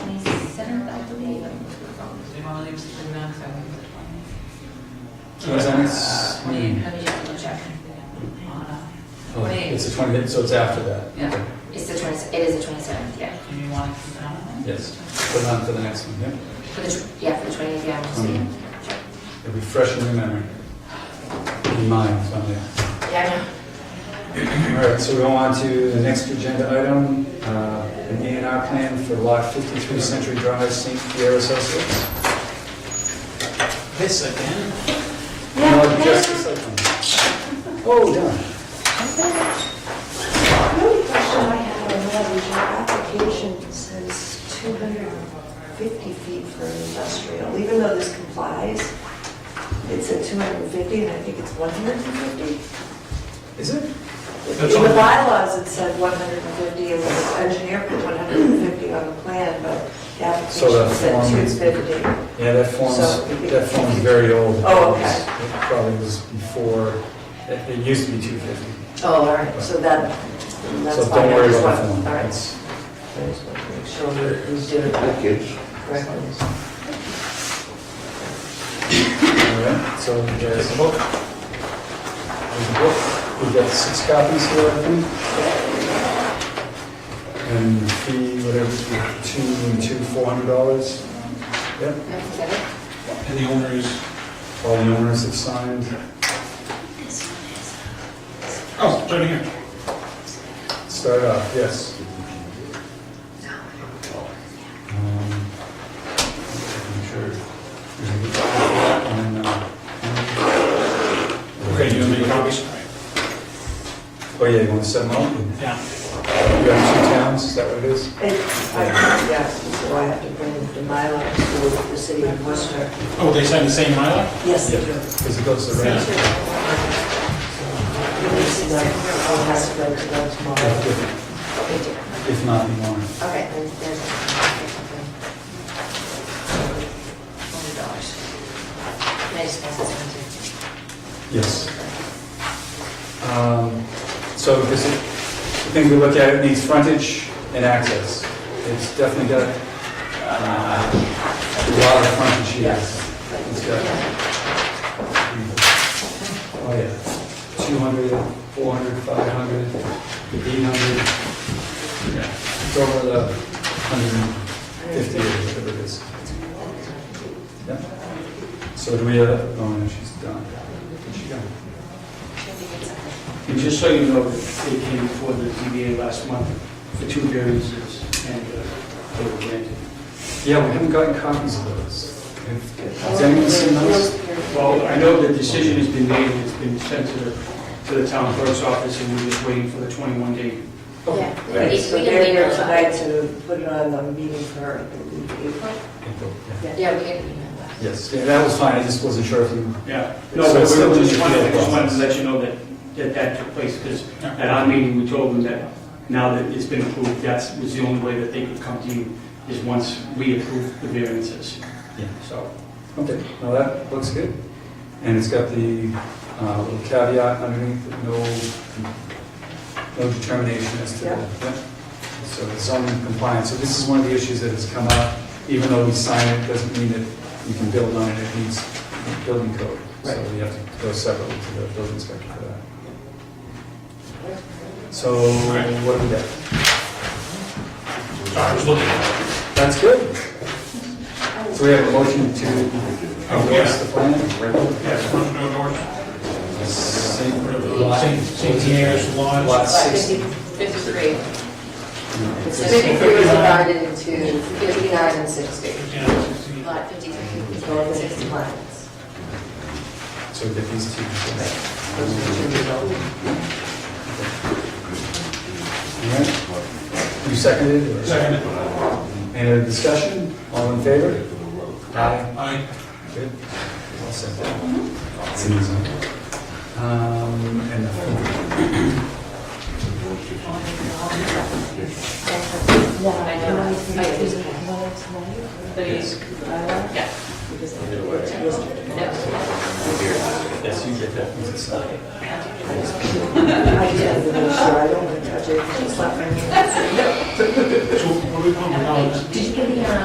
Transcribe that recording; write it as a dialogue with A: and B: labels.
A: sense?
B: Let me, let me double check. Uh,
A: Oh,
B: Wait.
A: It's the 20, so it's after that?
B: Yeah, it's the twenty, it is the twenty-seventh, yeah.
C: Do you want to keep it on?
A: Yes, put it on for the next one, yeah?
B: For the, tw- yeah, for the twentieth, yeah, I'm just saying.
A: It'll be fresh in your memory. In mind, so yeah.
B: Yeah,
A: All right, so we go on to the next agenda item, uh, an A and R plan for lot 53 Century Drive, St. Pierre Associates.
C: This again?
B: I know.
A: No, just the site plan. Oh, done.
D: The only question I have on that is your application says 250 feet for industrial, even though this complies, it's at 250 and I think it's 150.
A: Is it?
E: That's
D: In the
E: all.
D: bylaws, it said 150 and the engineer put 150 on the plan, but the
A: So that
D: application said
A: form is-
D: 250.
A: Yeah, that form's,
D: So-
A: that form's very old.
D: Oh, okay.
A: It probably was before, it it used to be 250.
D: Oh, all right, so that, that's
A: So
D: fine.
A: don't
D: I
A: worry
D: just
A: about the
D: want-
A: form.
D: All right,
A: It's-
D: I just want to make sure we we did it
E: Kids.
D: correctly.
A: All right, so there's the book. There's the book. We've got six copies here, I think. And the fee, whatever, two, two, four hundred dollars. Yep,
B: Is that it?
E: And the owner is,
A: all the owners have signed.
E: oh, it's right here.
A: Start off, yes. Um, I'm sure. And, uh,
E: Okay, you want me to copies?
A: Oh, yeah, you want to set them up?
E: Yeah.
A: You have two towns, is that what it is?
D: It's, I, yes, so I have to bring the Mylar to the city of Worcester.
E: Oh, they signed the same Mylar?
D: Yes,
A: Yeah,
D: they do.
A: because it goes to the ranch.
D: Release them, I'll have to go to them tomorrow.
A: If
B: Okay, dear.
A: if not, you want.
B: All right, then there's. Hundred dollars. Can I just pass this one to
A: Yes. Um, So this is, the thing we look at, it needs frontage and access. It's definitely got uh, a lot of frontage here. It's got, oh yeah, 200, 400, 500, 800. Yeah, It's over the 150 or whatever it is. Yeah. So do we have, oh, no, she's done. Where'd she go?
F: And just so you know, they came before the ZBA last month for two variances, and uh, they were granted.
A: Yeah, we haven't gotten copies of those. Has anyone seen those?
F: Well, I know the decision has been made, and it's been sent to the, to the town clerk's office, and we're just waiting for the 21-day.
A: Oh,
B: Yeah.
D: Right,
B: We-
D: so
B: we can
D: they're
B: leave
D: here
B: it.
D: tonight to put it on the meeting for, I believe, April.
B: you? Yeah, we can email that.
A: Yes, yeah, that was fine, I just wasn't sure if you,
F: Yeah.
A: So
F: No, but
A: it's
F: we
A: still
F: were
A: in
F: just
A: the
F: wanted, I
A: appeal
F: just wanted to
A: process.
F: let you know that, that that took place, because at our meeting, we told them that now that it's been approved, that was the only way that they could come to you, is once we approve the variances.
A: Yeah.
F: So.
A: okay, now that looks good. And it's got the uh, little caveat underneath, no, no determination as to,
D: Yeah.
A: yeah. So it's zoning compliance, so this is one of the issues that has come up, even though we sign it, doesn't mean that you can build on it, it needs building code. So we have to go separately to the building inspector for that. So what do we got?
E: Sorry, I was looking.
A: That's good. So we have a motion to endorse the plan?
E: Yes, no, no, no.
A: Same
E: St. St. Pierre's Lodge.
A: Lot
B: Lot
A: six.
B: 50 Fifty-three. So
A: It's-
B: Fifty-three was divided into fifty-nine and sixty.
E: Yeah, 16.
B: Lot fifty-three, fifty-nine, and sixty lines.
A: So we get these two. Alright. You seconded? or-
E: Second.
A: Any discussion? All in favor? Aye.
E: Aye.
A: Good. All set. It's an easy one. Um, and the-
B: I know. I use it.
A: Yes.
B: Yeah. No.
A: Yes, you get that. It's not-
D: I just have to make sure I don't want to touch it, it's not my
E: So what do we want to know?
B: Did you give me, uh,